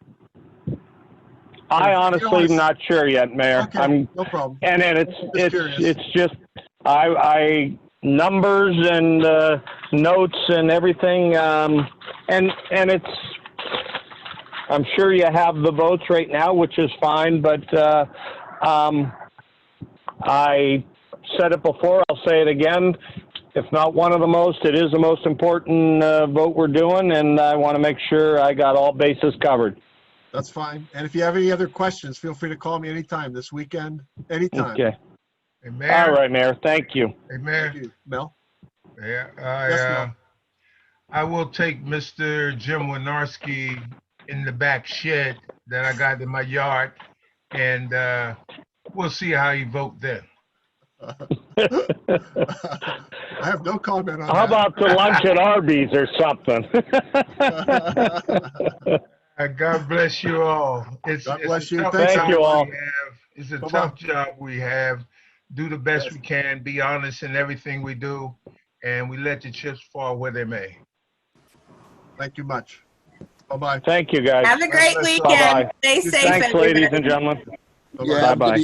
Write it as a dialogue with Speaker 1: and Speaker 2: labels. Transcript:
Speaker 1: I honestly am
Speaker 2: Feelings.
Speaker 1: not sure yet, Mayor.
Speaker 2: Okay,
Speaker 1: I'm,
Speaker 2: no problem.
Speaker 1: and then it's,
Speaker 2: Just
Speaker 1: it's,
Speaker 2: curious.
Speaker 1: it's just, I, I, numbers and, uh, notes and everything, um, and, and it's, I'm sure you have the votes right now, which is fine, but, uh, um, I said it before, I'll say it again. If not one of the most, it is the most important, uh, vote we're doing, and I want to make sure I got all bases covered.
Speaker 2: That's fine. And if you have any other questions, feel free to call me anytime this weekend, anytime.
Speaker 1: Okay.
Speaker 3: Hey,
Speaker 1: All
Speaker 3: Mayor,
Speaker 1: right, Mayor, thank you.
Speaker 3: hey,
Speaker 2: Thank
Speaker 3: Mayor,
Speaker 2: you, Mel.
Speaker 3: yeah, I,
Speaker 2: Yes,
Speaker 3: uh,
Speaker 2: ma'am.
Speaker 3: I will take Mr. Jim Winarski in the back shed that I got in my yard, and, uh, we'll see how he vote then.
Speaker 2: I have no comment on that.
Speaker 1: How about the lunch at Arby's or something?
Speaker 3: Uh, God bless you all. It's-
Speaker 2: God
Speaker 3: it's a
Speaker 2: bless you.
Speaker 3: tough
Speaker 2: Thank
Speaker 3: job
Speaker 1: you all.
Speaker 3: we have. It's a
Speaker 2: Bye-bye.
Speaker 3: tough job we have. Do the best
Speaker 2: Yes.
Speaker 3: we can, be honest in everything we do, and we let the chips fall where they may.
Speaker 2: Thank you much. Bye-bye.
Speaker 1: Thank you, guys.
Speaker 4: Have a great
Speaker 3: Bye-bye.
Speaker 4: weekend. Stay safe,
Speaker 1: Thanks, ladies
Speaker 4: everybody.
Speaker 1: and gentlemen.
Speaker 2: Bye-bye.
Speaker 5: Yeah,
Speaker 1: Bye-bye.